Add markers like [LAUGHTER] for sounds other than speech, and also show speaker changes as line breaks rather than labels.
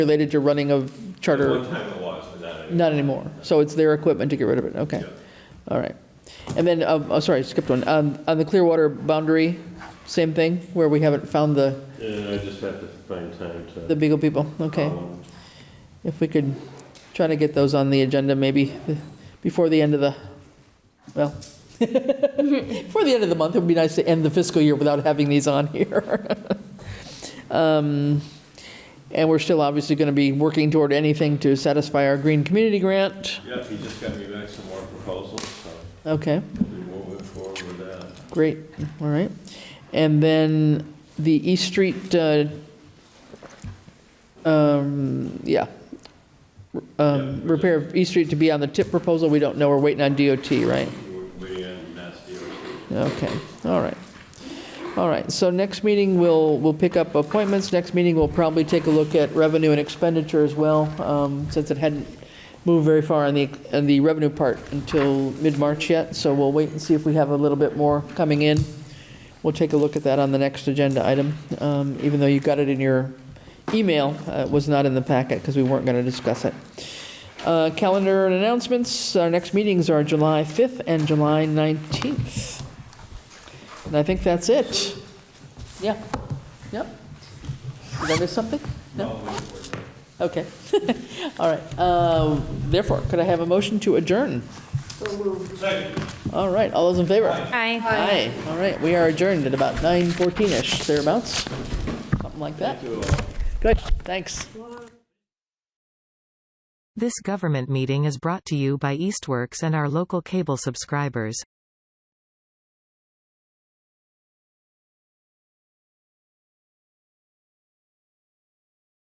related to running of
At
charter?
one time it was, but not anymore.
Not anymore. So it's their equipment to get rid of it, okay. All right. And then, um, oh, sorry, skipped one. Um, On the Clearwater boundary, same thing, where we haven't found the,
Yeah, I just have to find time to.
the Beagle people, okay.
Um,
If we could try to get those on the agenda, maybe before the end of the, well, [LAUGHS] before the end of the month, it would be nice to end the fiscal year without having these on here. [LAUGHS] Um, And we're still obviously going to be working toward anything to satisfy our green community grant,
Yep, he just got me back some more proposals, so
okay.
we're moving forward with that.
Great, all right. And then the East Street, uh, um, yeah, um, repair of East Street to be on the tip proposal, we don't know, we're waiting on DOT, right?
We're waiting on Mass DOT.
Okay, all right. All right, so next meeting, we'll, we'll pick up appointments. Next meeting, we'll probably take a look at revenue and expenditure as well, um, since it hadn't moved very far on the, on the revenue part until mid-March yet. So we'll wait and see if we have a little bit more coming in. We'll take a look at that on the next agenda item, um, even though you got it in your email. uh, It was not in the packet because we weren't going to discuss it. Uh, Calendar and announcements, our next meetings are July 5th and July 19th. And I think that's it. Yeah, yep. Did I miss something? No? Okay, [LAUGHS] all right. Um, Therefore, could I have a motion to adjourn?
Second.
All right, all those in favor?
Aye.
Aye, all right, we are adjourned at about 9:14-ish, thereabouts, something like that. Good, thanks.
This government meeting is brought to you by Eastworks and our local cable subscribers.